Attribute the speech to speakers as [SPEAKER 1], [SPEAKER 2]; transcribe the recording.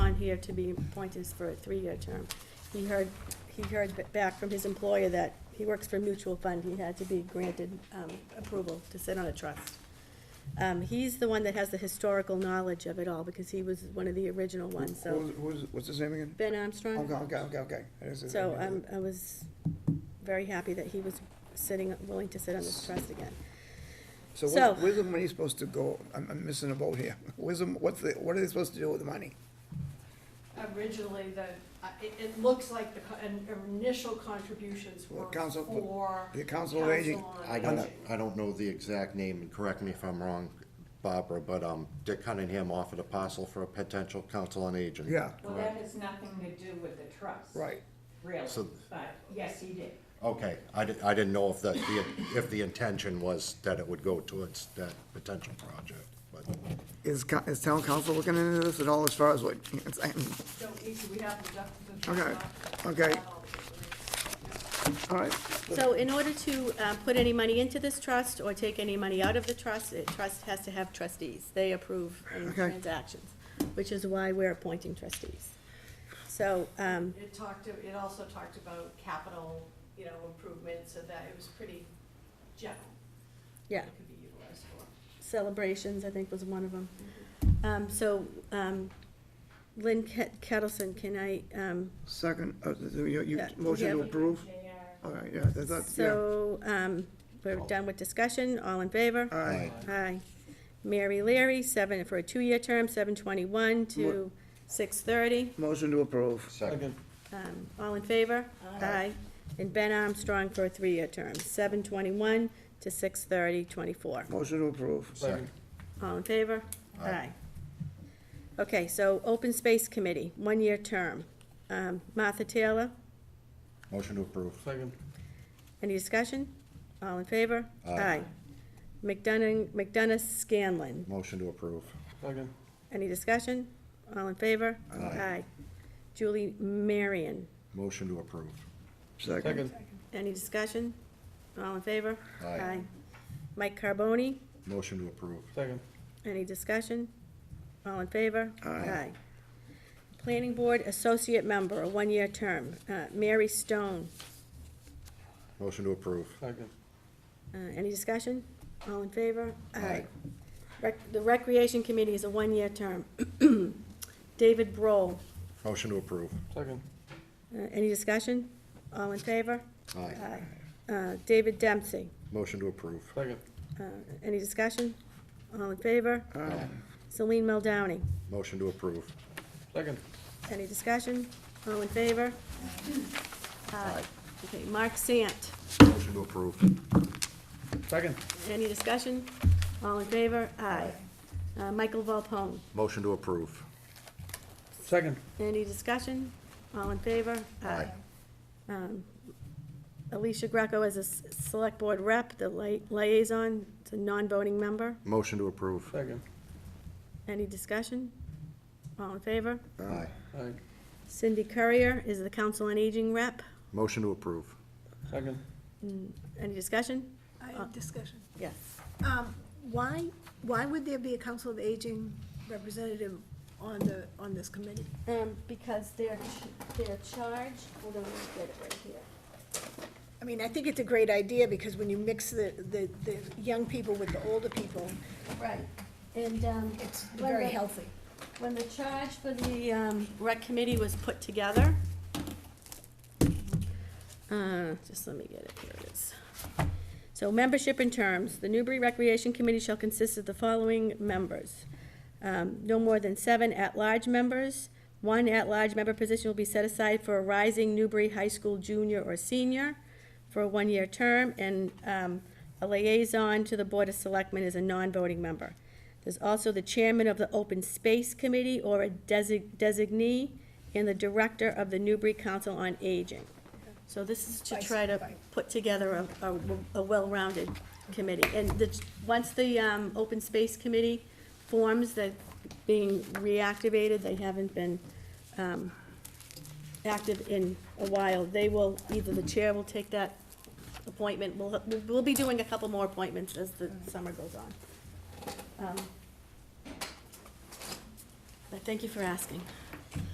[SPEAKER 1] year to be appointed for a three-year term. He heard, he heard b- back from his employer that he works for a mutual fund, he had to be granted um, approval to sit on a trust. Um, He's the one that has the historical knowledge of it all, because he was one of the original ones,
[SPEAKER 2] Who
[SPEAKER 1] so.
[SPEAKER 2] was- Oh, who was- what's his name again?
[SPEAKER 1] Ben Armstrong?
[SPEAKER 2] Okay, okay, okay, okay. That is his
[SPEAKER 1] So
[SPEAKER 2] name.
[SPEAKER 1] um, I was very happy that he was sitting, willing to sit on this trust again.
[SPEAKER 2] So
[SPEAKER 1] so-
[SPEAKER 2] where's, where's the money supposed to go? I'm, I'm missing a boat here. Where's the, what's the, what are they supposed to do with the money?
[SPEAKER 3] Originally, the, uh, it, it looks like the co- an- initial contributions
[SPEAKER 2] Well,
[SPEAKER 3] were
[SPEAKER 2] council-
[SPEAKER 3] for.
[SPEAKER 2] the council of aging,
[SPEAKER 3] council on
[SPEAKER 2] I
[SPEAKER 4] I
[SPEAKER 2] don't-
[SPEAKER 4] don't,
[SPEAKER 3] aging.
[SPEAKER 4] I don't know the exact name, and correct me if I'm wrong, Barbara, but um, Dick Cunningham offered a parcel for a potential council on aging.
[SPEAKER 2] Yeah,
[SPEAKER 5] Well, that has nothing to do with the trust.
[SPEAKER 2] right.
[SPEAKER 5] Really,
[SPEAKER 4] So-
[SPEAKER 5] but, yes, he did.
[SPEAKER 4] Okay, I didn't, I didn't know if that, the if the intention was that it would go towards that potential project, but
[SPEAKER 2] Is, co- is town council looking into this at all as far as what? it's-
[SPEAKER 3] So easy, we have the document.
[SPEAKER 2] Okay, okay. All right,
[SPEAKER 1] So in order to uh, put any money into this trust or take any money out of the trust, it trust has to have trustees. They approve any
[SPEAKER 2] Okay.
[SPEAKER 1] transactions, which is why we're appointing trustees. So, um,
[SPEAKER 3] It talked, to- it also talked about capital, you know, improvements, so that it was pretty general.
[SPEAKER 1] yeah,
[SPEAKER 3] It could be utilized for.
[SPEAKER 1] celebrations, I think, was one of them. Um, So um, Lynn Ket- Kettleson, can I, um,
[SPEAKER 2] second, uh, you, you,
[SPEAKER 1] Yeah,
[SPEAKER 2] motion to
[SPEAKER 1] yeah.
[SPEAKER 2] approve?
[SPEAKER 5] They are-
[SPEAKER 2] All right, yeah, that's, that's- yeah. Uh,
[SPEAKER 1] so um, we're done with discussion, all in favor?
[SPEAKER 2] All right,
[SPEAKER 1] Aye. Mary Leary, seven, for a two-year term, seven twenty-one to six thirty.
[SPEAKER 2] motion to approve.
[SPEAKER 4] second,
[SPEAKER 1] Um, all in favor? Aye. And Ben Armstrong for a three-year term, seven twenty-one to six thirty, twenty-four.
[SPEAKER 2] Motion to approve.
[SPEAKER 4] second,
[SPEAKER 1] All in favor?
[SPEAKER 4] Aye.
[SPEAKER 1] Okay, so Open Space Committee, one-year term. Um, Martha Taylor,
[SPEAKER 4] motion to approve.
[SPEAKER 6] Second,
[SPEAKER 1] any discussion? All in favor?
[SPEAKER 4] Aye.
[SPEAKER 1] McDonough, McDonough Scanlon,
[SPEAKER 4] Motion to approve.
[SPEAKER 6] second,
[SPEAKER 1] Any discussion? All in favor?
[SPEAKER 4] Aye.
[SPEAKER 1] Julie Marion,
[SPEAKER 4] Motion to approve.
[SPEAKER 2] Second,
[SPEAKER 6] second,
[SPEAKER 1] any discussion? All in favor?
[SPEAKER 4] Aye.
[SPEAKER 1] Mike Carboni,
[SPEAKER 4] Motion to approve.
[SPEAKER 6] second,
[SPEAKER 1] any discussion? All in favor?
[SPEAKER 2] Aye.
[SPEAKER 1] Planning Board Associate Member, a one-year term, uh, Mary Stone,
[SPEAKER 4] Motion to approve.
[SPEAKER 6] second,
[SPEAKER 1] uh, any discussion? All in favor?
[SPEAKER 4] Aye.
[SPEAKER 1] Rec- The Recreation Committee is a one-year term, David Broll,
[SPEAKER 4] Motion to approve.
[SPEAKER 6] second,
[SPEAKER 1] uh, any discussion? All in favor?
[SPEAKER 4] Aye.
[SPEAKER 1] Uh, David Dempsey,
[SPEAKER 4] Motion to approve.
[SPEAKER 6] second,
[SPEAKER 1] Uh, Any discussion? All in favor?
[SPEAKER 4] Aye.
[SPEAKER 1] Celine Meldowney.
[SPEAKER 4] Motion to approve.
[SPEAKER 6] second,
[SPEAKER 1] Any discussion? All in favor? Aye. Okay, Mark Sant.
[SPEAKER 4] Motion to approve.
[SPEAKER 6] second,
[SPEAKER 1] Any discussion? All in favor? Aye. Uh, Michael Volpone.
[SPEAKER 4] Motion to approve.
[SPEAKER 6] second,
[SPEAKER 1] Any discussion? All in favor?
[SPEAKER 4] Aye.
[SPEAKER 1] Um, Alicia Greco as a s- Select Board Rep, the li- liaison, it's a non-voting member.
[SPEAKER 4] Motion to approve.
[SPEAKER 6] second,
[SPEAKER 1] Any discussion? All in favor?
[SPEAKER 4] Aye.
[SPEAKER 6] aye,
[SPEAKER 1] Cindy Courier is the Council on Aging Rep.
[SPEAKER 4] Motion to approve.
[SPEAKER 6] second,
[SPEAKER 1] Any discussion?
[SPEAKER 7] I have Uh, discussion.
[SPEAKER 1] Yes.
[SPEAKER 7] Um, Why, why would there be a Council of Aging representative on the, on this committee?
[SPEAKER 1] Um, because they're, ch- they're charged, hold on, let me get it right here.
[SPEAKER 7] I mean, I think it's a great idea, because when you mix the, the, the young people with the older people,
[SPEAKER 1] Right. And, um.
[SPEAKER 7] it's
[SPEAKER 1] when
[SPEAKER 7] very
[SPEAKER 1] the-
[SPEAKER 7] healthy.
[SPEAKER 1] When the charge for the, um, rec committee was put together, uh, just let me get it, here it is. So membership and terms, the Newbury Recreation Committee shall consist of the following members. Um, no more than seven at-large members. One at-large member position will be set aside for a rising Newbury High School junior or senior for a one-year term, and, um, a liaison to the Board of Selectmen is a non-voting member. There's also the chairman of the Open Space Committee or a desi- designee, and the director of the Newbury Council on Aging. So this is to
[SPEAKER 7] Vice-
[SPEAKER 1] try to
[SPEAKER 7] vice.
[SPEAKER 1] put together a, a, a well-rounded committee. And the, once the, um, open space committee forms that being reactivated, they haven't been, um, active in a while, they will, either the chair will take that appointment, we'll, we'll be doing a couple more appointments as the summer goes on. Um, But thank you for asking.